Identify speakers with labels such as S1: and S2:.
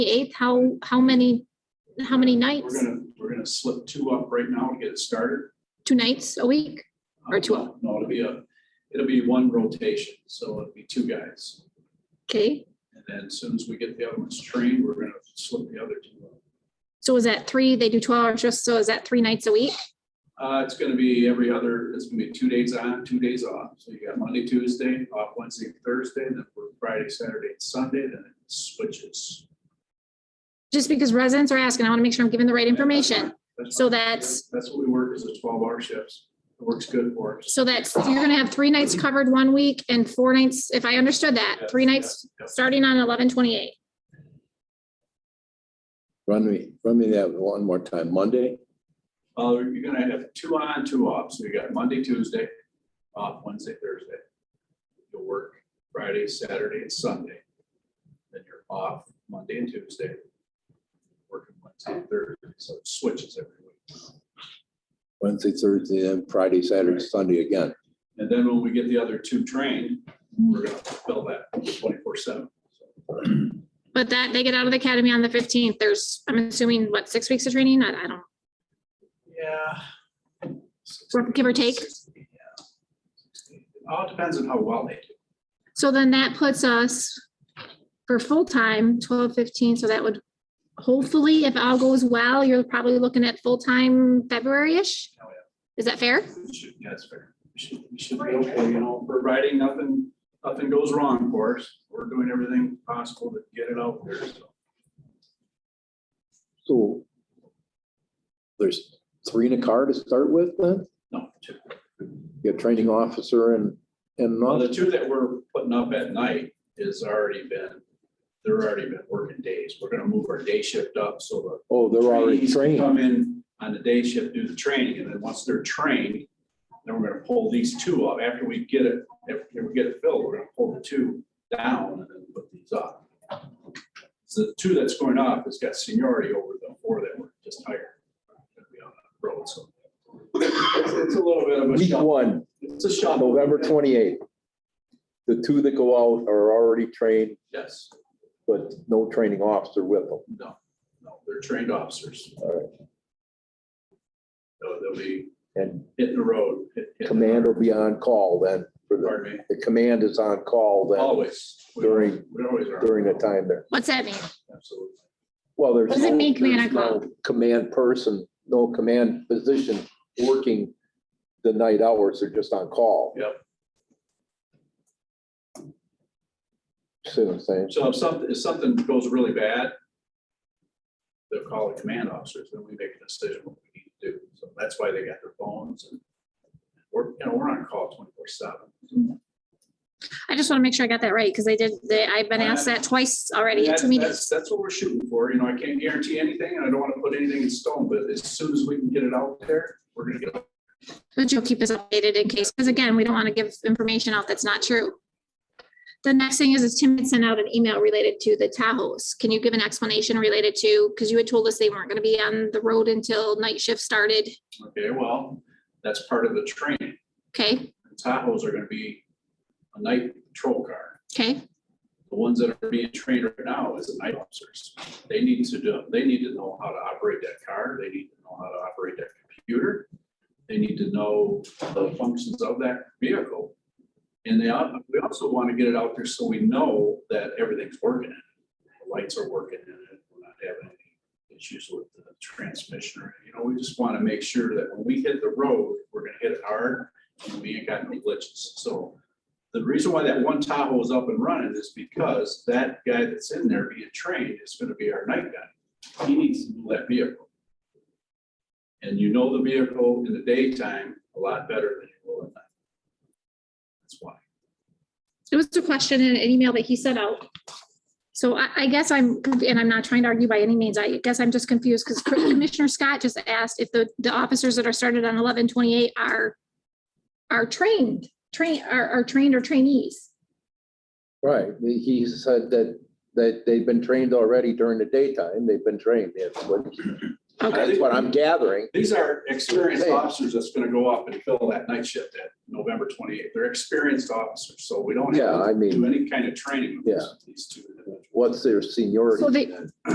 S1: eighth, how, how many, how many
S2: Uh, We're
S1: nights?
S2: gonna, we're gonna slip two up right now to get it started.
S1: Two nights a week? Or two
S2: Uh, No, it'll be a, it'll be one rotation, so it'll be two guys.
S1: Okay,
S2: And then as soon as we get the other ones trained, we're gonna slip the other two up.
S1: so is that three, they do twelve hours just, so is that three nights a week?
S2: Uh, it's gonna be every other, it's gonna be two days on, two days off. So you got Monday, Tuesday, off Wednesday, Thursday, then for Friday, Saturday, and Sunday, then it switches.
S1: Just because residents are asking, I want to make sure I'm giving the right information.
S2: That's
S1: So
S2: fine.
S1: that's-
S2: That's what we work, is the twelve hour shifts. It works good for us.
S1: So that's, you're gonna have three nights covered one week and four nights, if I understood that, three nights starting on eleven twenty-eight.
S3: Run me, run me that one more time. Monday,
S2: Uh, you're gonna have two on, two off, so you got Monday, Tuesday, off Wednesday, Thursday. You'll work Friday, Saturday, and Sunday. Then you're off Monday and Tuesday. Working Wednesday, and Thursday, so it switches every week.
S3: Wednesday, Thursday, and Friday, Saturday, Sunday again.
S2: And then when we get the other two trained, we're gonna fill that twenty-four seven.
S1: But that, they get out of the academy on the fifteenth, there's, I'm assuming, what, six weeks of training? I, I don't,
S2: Yeah.
S1: Give or take?
S2: Yeah. All depends on how well they do.
S1: so then that puts us for full-time, twelve fifteen, so that would hopefully, if all goes well, you're probably looking at full-time February-ish?
S2: Oh, yeah.
S1: Is that fair?
S2: We should- Yeah, that's fair. We should, we should be okay, you know, providing nothing, nothing goes wrong for us. We're doing everything possible to get it out there, so.
S3: So there's three in a car to start with then?
S2: No, two.
S3: You have training officer and, and
S2: Well, the
S3: another.
S2: two that we're putting up at night is already been, they're already been working days. We're gonna move our day shift up, so
S3: Oh,
S2: the.
S3: they're already
S2: trainees can
S3: trained.
S2: Come in on the day shift, do the training, and then once they're trained, then we're gonna pull these two up. After we get it, after we get it filled, we're gonna pull the two down and then put these up. So the two that's going up has got seniority over the four that were just hired. Gonna be on the road, so. It's it's a little bit of a
S3: Week
S2: shuffle.
S3: one,
S2: It's a shuffle.
S3: November twenty-eighth. The two that go out are already trained,
S2: Yes,
S3: but no training officer with them.
S2: no, no, they're trained officers.
S3: All right.
S2: So They'll be
S3: And
S2: hitting the road. hit- hit-
S3: command will be on call then for the,
S2: Pardon me,
S3: the command is on call then
S2: always. We-
S3: During-
S2: we always are.
S3: during the time there.
S1: What's that mean?
S2: Absolutely.
S3: Well, there's.
S1: What does it
S3: no-
S1: mean, command
S3: there's
S1: and call?
S3: no Command person, no command position working the night hours, they're just on call.
S2: Yep.
S3: See what I'm saying?
S2: So if something, if something goes really bad, they'll call the command officers, then we make a decision what we need to do. So that's why they got their phones and we're, you know, we're on call twenty-four seven.
S1: I just want to make sure I got that right, because they did, they, I've been asked that twice already in
S2: That's,
S1: two meetings.
S2: that's- that's what we're shooting for. You know, I can't guarantee anything and I don't want to put anything in stone, but as soon as we can get it out there, we're gonna get it.
S1: But you'll keep us updated in case, because again, we don't want to give information out that's not true. The next thing is, is Tim had sent out an email related to the Tahoes. Can you give an explanation related to, because you had told us they weren't going to be on the road until night shift started,
S2: Okay, well, that's part of the training.
S1: okay?
S2: Tahoes are gonna be a night patrol car.
S1: Okay,
S2: The ones that are being trained right now is the night officers. They need to do, they need to know how to operate that car. They need to know how to operate that computer. They need to know the functions of that vehicle. And they, al- we also want to get it out there so we know that everything's working. in it. The Lights are working in it. We're not having any issues with the transmission. or You know, we just want to make sure that when we hit the road, we're gonna hit it hard and we ain't got any glitches. So the reason why that one Tahoe is up and running is because that guy that's in there being trained is gonna be our night guy. He needs to know that vehicle. And you know the vehicle in the daytime a lot better than you will at night. That's why.
S1: it was a question in an email that he sent out. So I, I guess I'm, conf- and I'm not trying to argue by any means, I guess I'm just confused, because Commissioner Scott just asked if the, the officers that are started on eleven twenty-eight are, are trained, train, are, are trained or trainees.
S3: Right, he said that, that they've been trained already during the daytime, they've been trained, that's what, that's what I'm gathering.
S2: These are experienced
S3: Hey.
S2: officers that's gonna go up and fill that night shift at November twenty-eighth. They're experienced officers, so we don't
S3: Yeah,
S2: have
S3: I
S2: to do
S3: mean,
S2: any kind of training with
S3: Yeah.
S2: these two. individuals.
S3: what's their seniority?
S1: So they-
S3: then?